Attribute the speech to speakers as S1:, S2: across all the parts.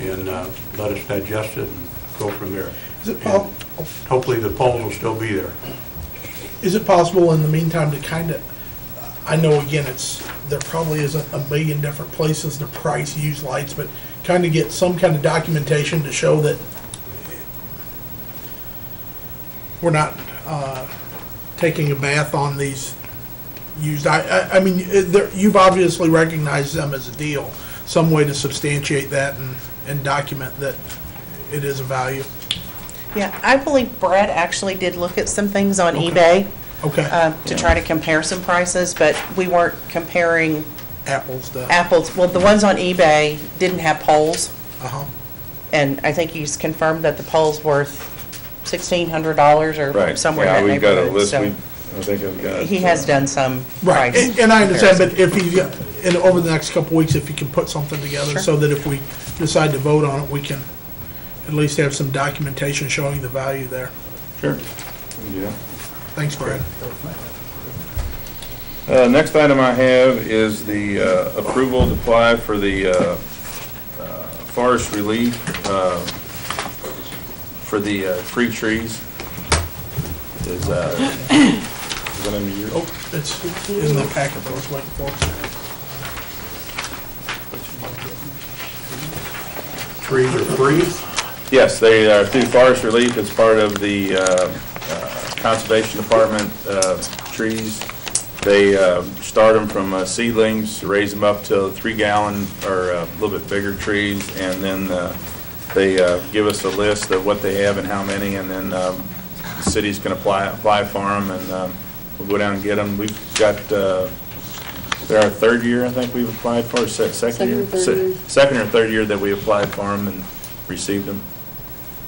S1: and uh, let us digest it and go from there.
S2: Is it po-
S1: Hopefully, the polls will still be there.
S2: Is it possible in the meantime to kind of, I know again, it's, there probably isn't a million different places to price used lights, but kind of get some kind of documentation to show that we're not uh, taking a bath on these used, I, I- I mean, it- there- you've obviously recognized them as a deal. Some way to substantiate that and, and document that it is a value.
S3: Yeah, I believe Brad actually did look at some things on eBay
S2: Okay,
S3: uh, to try to compare some prices, but we weren't comparing
S2: apples to,
S3: apples. Well, the ones on eBay didn't have poles,
S2: uh-huh,
S3: and I think he's confirmed that the pole's worth $1,600 or
S4: Right.
S3: somewhere
S4: Yeah,
S3: in that
S4: we've got a
S3: neighborhood.
S4: list.
S3: so
S4: We- I think I've got.
S3: He has done
S2: uh,
S3: some
S2: Right,
S3: price.
S2: and and I understand,
S3: comparison.
S2: but if he, and over the next couple weeks, if you can put something together,
S3: Sure.
S2: so that if we decide to vote on it, we can at least have some documentation showing the value there.
S4: Sure. Yeah.
S2: Thanks, Brad.
S4: Uh, Next item I have is the uh, approval to apply for the uh, uh, forest relief uh, for the uh, free trees. Is, uh, is that under your?
S2: Oh, it's in the packet that I was waiting for.
S1: Trees are free.
S4: Yes, they are through forest relief, it's part of the uh, uh, Conservation Department uh, trees. They uh, start them from uh, seedlings, raise them up to three gallon or uh, a little bit bigger trees, and then uh, they uh, give us a list of what they have and how many, and then um, the cities can apply, apply for them, and um, we'll go down and get them. We've got, uh, they're our third year, I think we've applied for, se- second year?
S5: Second or third
S4: Se-
S5: year.
S4: Second or third year that we applied for them and received them,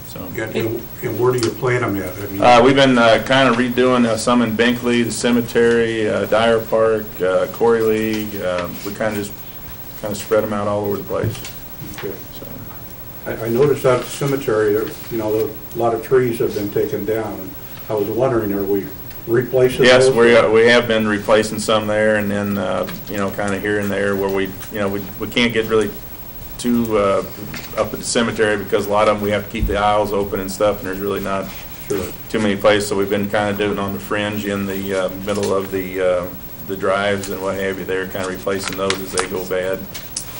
S4: so.
S1: And and where do you plant them at? I mean,
S4: Uh, we've been, uh, kind of redoing uh, some in Binkley, the cemetery, uh, Dyer Park, uh, Corey League, uh, we kind of just, kind of spread them out all over the place,
S1: okay.
S4: so.
S1: I I noticed out at the cemetery, there- you know, there- a lot of trees have been taken down. and I was wondering, are we replacing those?
S4: Yes, we, are- we have been replacing some there and then, uh, you know, kind of here and there where we, you know, we, we can't get really too, uh, up at the cemetery because a lot of them, we have to keep the aisles open and stuff and there's really not
S1: Sure.
S4: too many places. So we've been kind of doing on the fringe in the, uh, middle of the, uh, the drives and what have you there, kind of replacing those as they go bad.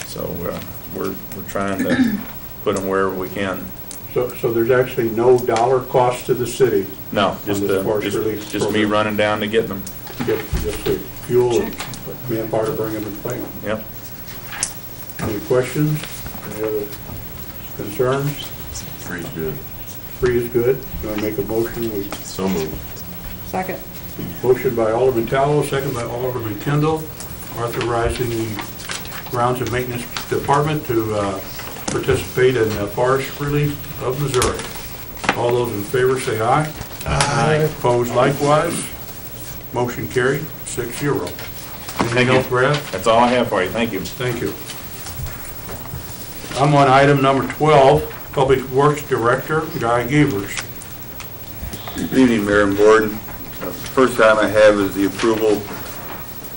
S4: So, uh, we're, we're trying to put them wherever we can.
S1: So, so there's actually no dollar cost to the city?
S4: No, just,
S1: On this
S4: uh,
S1: forest relief
S4: just, just me
S1: program.
S4: running down to getting them.
S1: Just just the fuel and manpower to bring them and plant them.
S4: Yep.
S1: Any questions? Any other concerns?
S6: Free's good.
S1: Free is good. Going to make a motion? We-
S6: So moved.
S5: Second.
S1: Motion by Alderman Tallow, second by Alderman Kendall, authorizing the grounds and maintenance department to uh, participate in the forest relief of Missouri. All those in favor say aye. Aye. Opposed likewise. Motion carried, six zero. Anything
S4: you.
S1: else, Brad?
S4: That's all I have for you. Thank you.
S1: Thank you. I'm on item number 12, Public Works Director Guy Gavers.
S7: Good evening, Mayor and Board. Uh, First item I have is the approval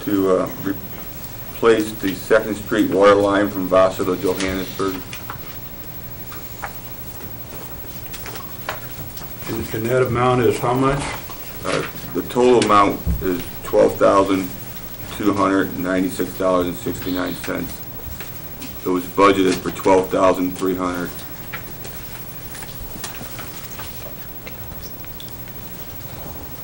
S7: to uh, replace the Second Street water line from Vassar to Johannesburg.
S1: And- And that amount is how much?
S7: Uh, The total amount is $12,296.69. It was budgeted for $12,300.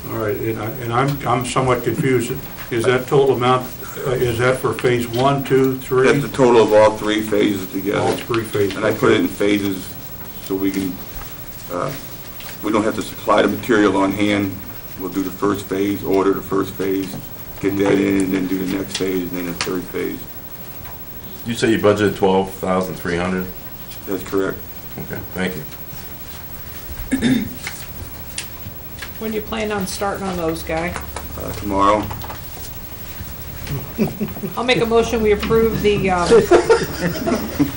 S1: All right, and I, and I'm, I'm somewhat confused. Is that total amount, uh, is that for phase one, two,
S7: That's
S1: three?
S7: the total of all three phases together.
S1: All three phases.
S7: And I put it in phases so we can, uh, we don't have to supply the material on hand. We'll do the first phase, order the first phase, get that in, and then do the next phase, and then the third phase.
S6: You say you budgeted twelve thousand three hundred?
S7: That's correct.
S6: Okay, thank you.
S5: When do you plan on starting on those, Guy?
S7: Uh, Tomorrow,
S5: I'll make a motion, we approve the uh,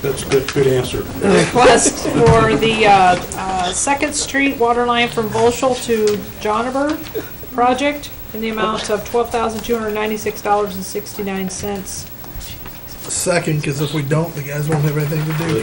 S1: That's a good, good answer.
S5: the request for the uh, uh, Second Street water line from Volschel to Johnneberg project in the amount of $12,296.69.
S2: Second, because if we don't, the guys won't have anything to do.